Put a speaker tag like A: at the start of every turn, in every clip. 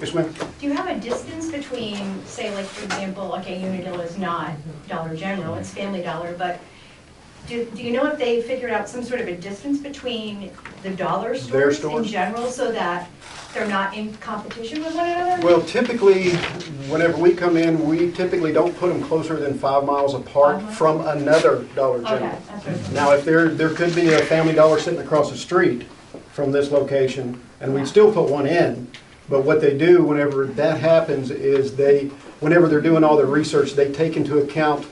A: Yes, ma'am.
B: Do you have a distance between, say, like, for example, okay, Unadilla is not Dollar General, it's Family Dollar, but do, do you know if they figured out some sort of a distance between the dollar
A: Their
B: stores in
A: stores?
B: general so that they're not in competition with one another?
A: Well, typically, whenever we come in, we typically don't put them closer than five miles apart
B: Uh-huh.
A: from another Dollar
B: Okay,
A: General.
B: that's what I'm-
A: Now, if there, there could be a Family Dollar sitting across the street from this location, and we'd still put one in, but what they do whenever that happens is they, whenever they're doing all their research, they take into account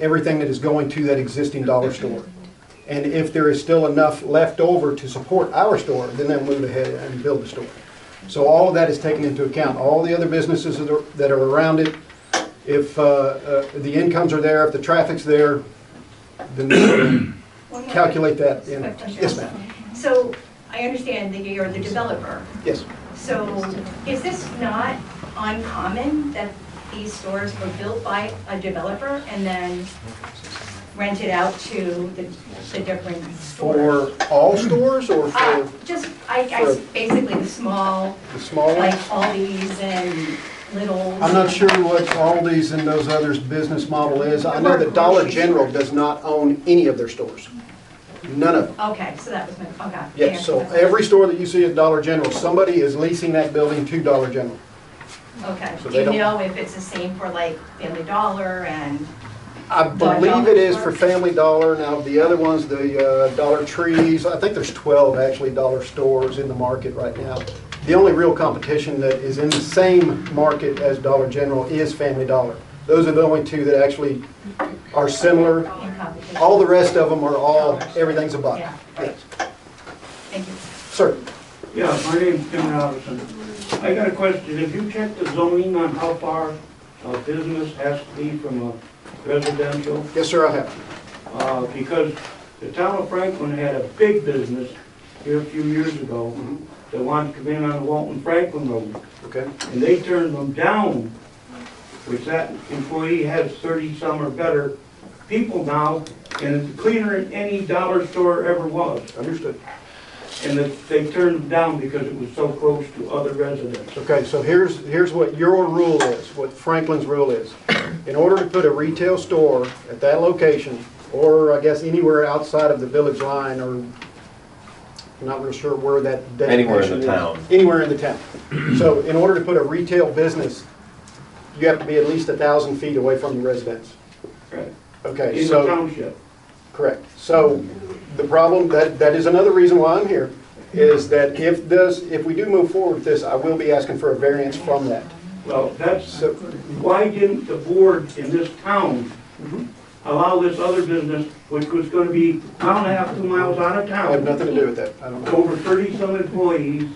A: everything that is going to that existing dollar store. And if there is still enough left over to support our store, then they'll move ahead and build the store. So all of that is taken into account, all the other businesses that are, that are around it, if, uh, uh, the incomes are there, if the traffic's there, then
B: One more
A: calculate that
B: quick
A: in.
B: question
A: Yes,
B: also.
A: ma'am.
B: So, I understand that you're the developer,
A: Yes.
B: So is this not uncommon that these stores were built by a developer and then rented out to the, the different stores?
A: For all stores or
B: Uh,
A: for
B: just, I, I, basically the small,
A: the small
B: like
A: ones?
B: Aldi's and Little's.
A: I'm not sure what Aldi's and those others' business model is. I know that Dollar General does not own any of their stores. None of them.
B: Okay, so that was my, okay.
A: Yes, so every store that you see at Dollar General, somebody is leasing that building to Dollar General.
B: Okay,
A: so
B: do
A: they
B: you
A: don't-
B: know if it's the same for like Family Dollar and,
A: I
B: Dollar
A: believe it is for
B: General.
A: Family Dollar. Now, the other ones, the uh, Dollar Trees, I think there's 12 actually dollar stores in the market right now. The only real competition that is in the same market as Dollar General is Family Dollar. Those are the only two that actually are similar.
B: in competition?
A: All the rest of them are all, everything's a buck.
B: Yeah.
A: Yes.
B: Thank you.
A: Sir,
C: Yeah, my name's Tim Robinson. I got a question. If you check the zoning on how far a business has to be from a residential?
A: yes, sir, I have.
C: Uh, Because the town of Franklin had a big business here a few years ago that wanted to come in on the Walton Franklin Road,
A: Okay.
C: and they turned them down, which that employee has thirty-some or better people now, and it's cleaner than any dollar store ever was.
A: Understood.
C: And that they turned them down because it was so close to other residents.
A: Okay, so here's, here's what your rule is, what Franklin's rule is. In order to put a retail store at that location, or I guess anywhere outside of the village line, or I'm not real sure where that
D: Anywhere in the
A: designation is.
D: town.
A: Anywhere in the town. So in order to put a retail business, you have to be at least a thousand feet away from the residence.
C: Right.
A: Okay,
C: In the
A: so.
C: township.
A: Correct. So the problem, that, that is another reason why I'm here, is that if this, if we do move forward with this, I will be asking for a variance from that.
C: Well, that's,
A: So,
C: why didn't the board in this town
A: Mm-hmm.
C: allow this other business, which was gonna be a mile and a half, two miles out of
A: I have
C: town,
A: nothing to do with that. I don't know.
C: over thirty-some employees?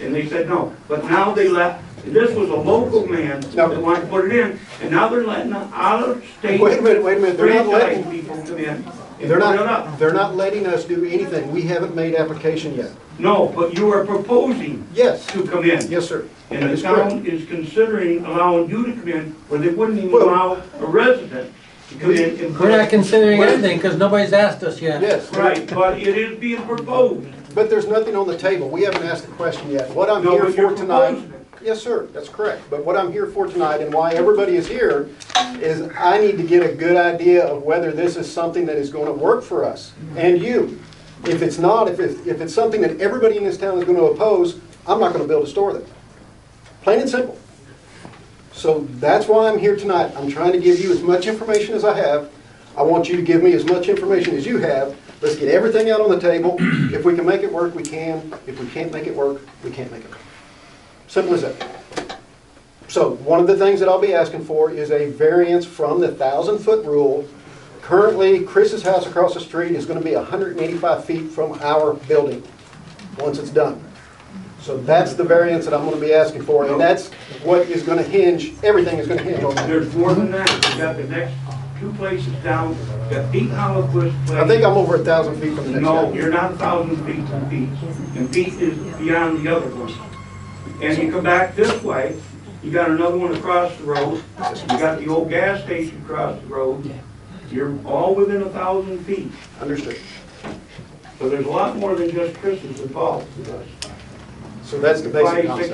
C: And they said no, but now they let, this was a local man
A: No.
C: that wanted to put it in, and now they're letting out-of-state
A: Wait a minute, wait a minute, they're not
C: franchise
A: letting,
C: people come in. and
A: they're
C: put it up.
A: not, they're not letting us do anything. We haven't made application yet.
C: No, but you are proposing
A: Yes,
C: to come in.
A: yes, sir. That
C: And the
A: is correct.
C: town is considering allowing you to come in, where they wouldn't even
A: Well-
C: allow a resident to come in and.
E: We're not considering anything, because nobody's asked us yet.
A: Yes,
C: Right, but it is being proposed.
A: but there's nothing on the table. We haven't asked the question yet. What I'm
C: No,
A: here
C: but you're
A: for tonight.
C: proposing it.
A: Yes, sir, that's correct. But what I'm here for tonight and why everybody is here is I need to get a good idea of whether this is something that is going to work for us and you. If it's not, if it's, if it's something that everybody in this town is going to oppose, I'm not going to build a store there. Plain and simple. So that's why I'm here tonight. I'm trying to give you as much information as I have. I want you to give me as much information as you have. Let's get everything out on the table. If we can make it work, we can. If we can't make it work, we can't make it work. Simple as that. So one of the things that I'll be asking for is a variance from the thousand foot rule. Currently, Chris's house across the street is gonna be hundred and eighty-five feet from our building, once it's done. So that's the variance that I'm gonna be asking for, and that's what is gonna hinge, everything is gonna hinge on that.
C: There's more than that. We've got the next two places down, We've got Pete Holloquist place.
A: I think I'm over a thousand feet from the next
C: No,
A: guy.
C: you're not a thousand feet from Pete. And Pete is beyond the other one. And you come back this way, you got another one across the road. You got the old gas station across the road. You're all within a thousand feet.
A: Understood.
C: So there's a lot more than just Chris's involved with us.
A: So that's the basic
C: Five, six
A: concept.